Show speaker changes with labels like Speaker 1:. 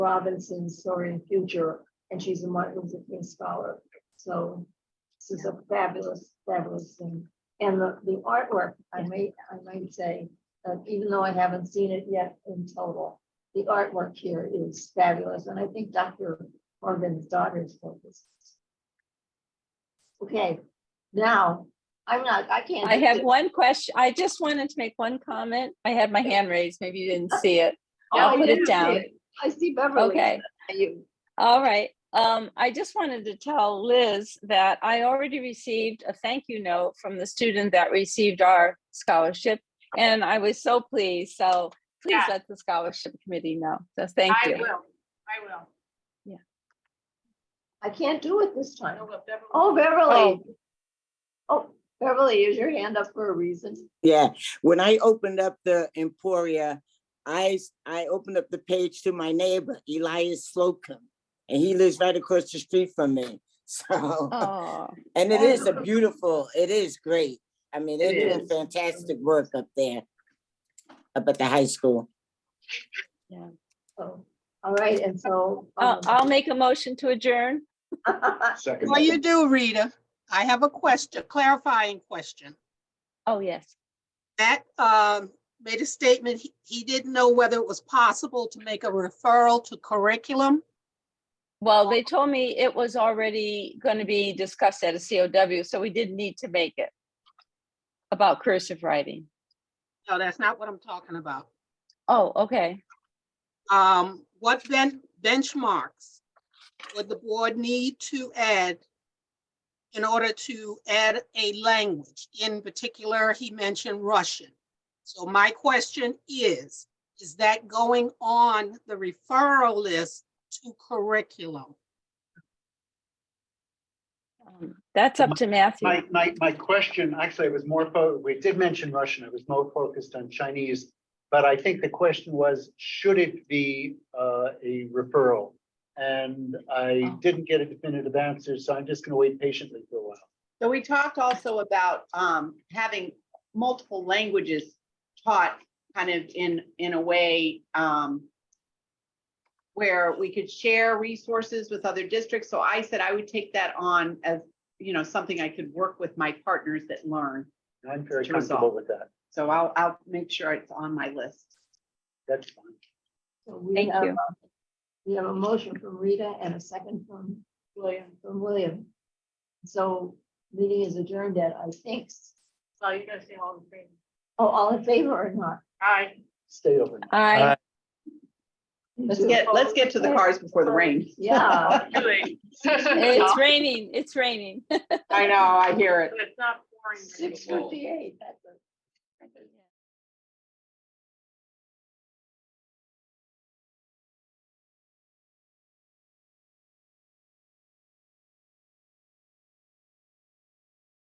Speaker 1: Robinson's Soaring Future, and she's a Martin Luther King scholar. So this is a fabulous, fabulous thing. And the, the artwork, I may, I might say, uh, even though I haven't seen it yet in total, the artwork here is fabulous, and I think Dr. Morgan's daughter's focus. Okay, now, I'm not, I can't.
Speaker 2: I have one question. I just wanted to make one comment. I had my hand raised. Maybe you didn't see it.
Speaker 1: Oh,
Speaker 2: I'll
Speaker 1: I
Speaker 2: put
Speaker 1: didn't
Speaker 2: it
Speaker 1: see
Speaker 2: down.
Speaker 1: I see
Speaker 3: Oh,
Speaker 1: Beverly.
Speaker 2: Okay,
Speaker 1: You,
Speaker 2: all right. Um, I just wanted to tell Liz that I already received a thank you note from the student that received our scholarship. And I was so pleased. So please
Speaker 3: Yeah.
Speaker 2: let the scholarship committee know. So thank
Speaker 3: I
Speaker 2: you.
Speaker 3: will, I will.
Speaker 1: I can't do it this time.
Speaker 3: No, but Beverly-
Speaker 1: Oh, Beverly. Oh, Beverly, is your hand up for a reason?
Speaker 4: Yeah, when I opened up the Emporia, I, s- I opened up the page to my neighbor, Elias Slocum. And he lives right across the street from me, so,
Speaker 2: Oh,
Speaker 4: and it is a beautiful, it is great. I mean, they're
Speaker 1: It
Speaker 4: doing fantastic work up there, up at the high school.
Speaker 1: Oh, all right, and so.
Speaker 2: I'll,
Speaker 3: Uh,
Speaker 1: um,
Speaker 2: Uh, I'll make a motion to adjourn.
Speaker 5: Second.
Speaker 6: Well, you do, Rita. I have a question, clarifying question.
Speaker 2: Oh, yes.
Speaker 6: Matt um, made a statement, he- he didn't know whether it was possible to make a referral to curriculum.
Speaker 2: Well, they told me it was already going to be discussed at a COW, so we didn't need to make it about cursive writing.
Speaker 6: No, that's not what I'm talking about.
Speaker 2: Oh, okay.
Speaker 6: Um, What ben- benchmarks would the board need to add in order to add a language? In particular, he mentioned Russian. So my question is, is that going on the referral list to curriculum?
Speaker 2: Um, That's up to Matthew.
Speaker 5: My, my, my question, actually, it was more, fo- we did mention Russian, it was more focused on Chinese. But I think the question was, should it be uh, a referral? And I
Speaker 2: Oh.
Speaker 5: didn't get a definitive answer, so I'm just going to wait patiently for a while.
Speaker 3: So we talked also about um having multiple languages taught kind of in in a way um where we could share resources with other districts. So I said I would take that on as, you know, something I could work with my partners that learn.
Speaker 5: And I'm very
Speaker 3: To resolve.
Speaker 5: comfortable with that.
Speaker 3: So I'll I'll make sure it's on my list.
Speaker 5: That's fine.
Speaker 1: so we
Speaker 2: Thank
Speaker 1: have
Speaker 2: you.
Speaker 1: a- We have a motion from Rita and a second from William, from William. So meeting is adjourned at, I think. So you're gonna say all in favor? Oh, all in favor or not?
Speaker 3: Aye.
Speaker 5: Stay overnight.
Speaker 2: I,
Speaker 3: Let's get, let's get to the cars before the rain.
Speaker 1: Yeah.
Speaker 2: it's raining, it's raining.
Speaker 3: I know, I hear it.
Speaker 1: Six fifty-eight, that's a.